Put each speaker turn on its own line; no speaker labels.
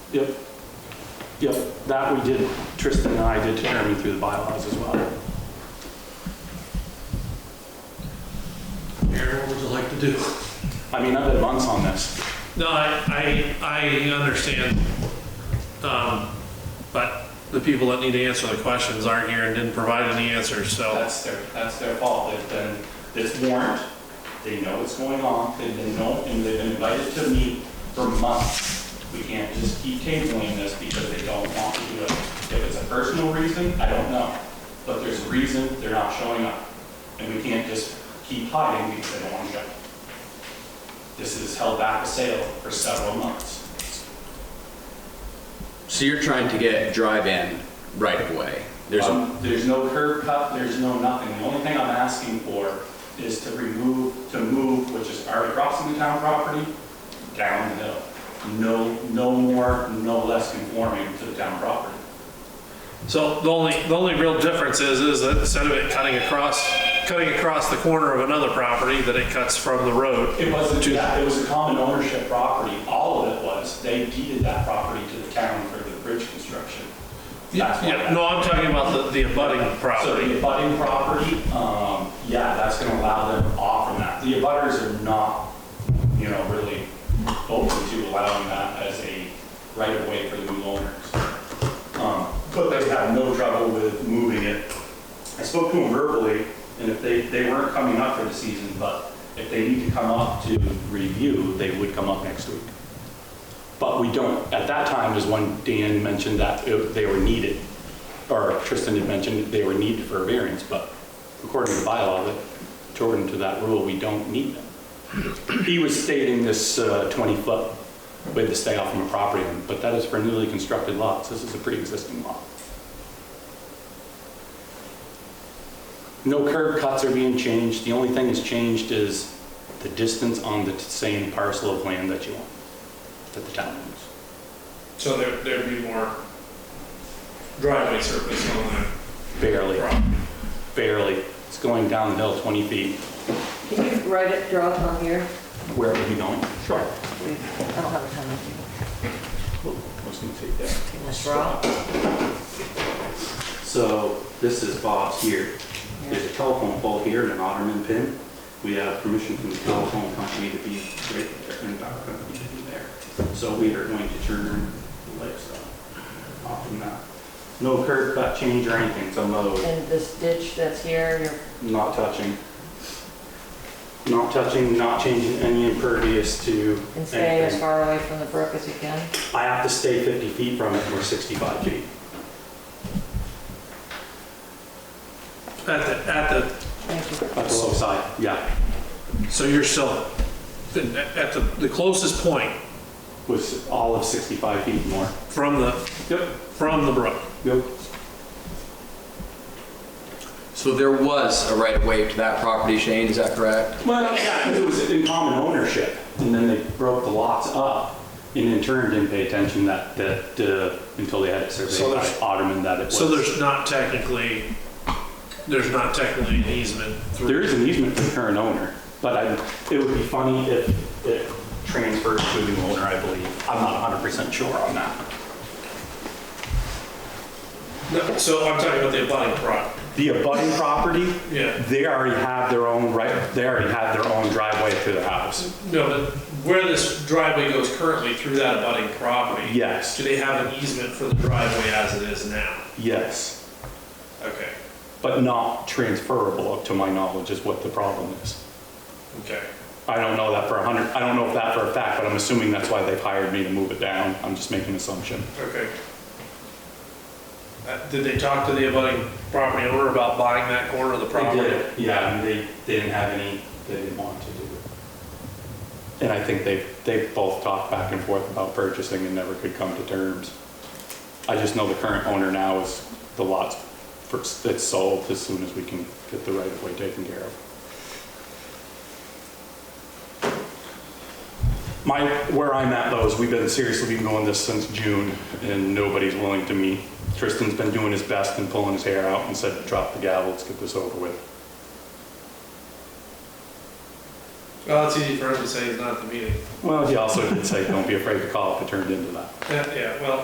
Yep. Yep, that we did, Tristan and I did determine through the bylaws as well.
Aaron, what would you like to do?
I mean, I've been months on this.
No, I, I, I understand, um, but the people that need to answer the questions aren't here and didn't provide any answers, so.
That's their, that's their fault. They've done this warrant, they know what's going on, they've been known, and they've been invited to meet for months. We can't just keep tabling this because they don't want to do it. If it's a personal reason, I don't know, but there's a reason they're not showing up. And we can't just keep hiding because they don't want to go. This has held back a sale for several months.
So you're trying to get drive-in right of way. There's a,
Um, There's no curb cut, there's no nothing. The only thing I'm asking for is to remove, to move, which is already crossing the town property, down the hill. No, no more, no less conforming to the town property.
So the only, the only real difference is, is that instead of it cutting across, cutting across the corner of another property, that it cuts from the road.
It wasn't that, it was a common ownership property. All of it was, they deeded that property to the town for the bridge construction. That's why
Yeah,
that-
no, I'm talking about the, the abutting
So
property.
the abutting property, um, yeah, that's gonna allow them off from that. The abutters are not, you know, really open to allowing that as a right of way for the new owners. Um, But they have no trouble with moving it. I spoke to them verbally, and if they, they weren't coming up for the season, but if they need to come up to review, they would come up next week. But we don't, at that time is when Dan mentioned that it- they were needed, or Tristan had mentioned that they were needed for a variance, but according to bylaw, that, according to that rule, we don't need them. He was stating this 20-foot with the stay off from a property, line, but that is for newly constructed lots. This is a pre-existing lot. No curb cuts are being changed. The only thing that's changed is the distance on the same parcel of land that you own, that the town owns.
So there, there'd be more driveway surface on
Barely,
that property.
barely. It's going down the hill 20 feet.
Can you write it, draw it on here?
Where are we going? Sure.
I don't have a ton of
I was gonna take that.
things. Draw?
So this is Bob's here. There's
Yeah.
a telephone pole here and an ottoman pin. We have permission from the telephone company to be right there and the power company to be there. So we are going to turn the lights off- off from that. No curb cut change or anything, so no,
And this ditch that's here, you're
not touching. Not touching, not changing any impervious to
and stay as
anything.
far away from the brook as you can.
I have to stay 50 feet from it, or 65 feet.
At the, at the,
Thank you.
At the low side, yeah,
so you're still, at the, the closest point
was all of 65 feet more.
from the,
Yep.
from the brook.
Yep.
so there was a right of way to that property, Shane, is that correct?
Well, yeah, 'cause it was in common ownership, and then they broke the lots up, and in turn didn't pay attention that, that, uh, until they had it
So
surveyed
there's-
by Ottoman that it was.
So there's not technically, there's not technically an easement
There
through.
is an easement for the current owner, but I, it would be funny if it transferred to the new owner, I believe. I'm not hundred percent sure on that.
No, So I'm talking about the abutting property.
The abutting property,
Yeah.
they already have their own right, they already have their own driveway to the house.
No, but where this driveway goes currently through that abutting property,
Yes,
do they have an easement for the driveway as it is now?
yes,
Okay,
but not transferable, to my knowledge, is what the problem is.
okay.
I don't know that for a hundred, I don't know if that for a fact, but I'm assuming that's why they've hired me to move it down. I'm just making an assumption.
Okay. Uh, Did they talk to the abutting property owner about buying that corner of the property?
Yeah, and they, they didn't have any, they didn't want to do it. And I think they, they both talked back and forth about purchasing and never could come to terms. I just know the current owner now is the lot's, first- it's sold as soon as we can get the right of way taken care of. My, where I'm at though is we've been seriously been going this since June and nobody's willing to meet. Tristan's been doing his best and pulling his hair out and said, drop the gavel, let's get this over with.
Well, it's easy for him to say he's not at the meeting.
Well, he also did say, don't be afraid to call if it turned into that.
Yeah, yeah, well,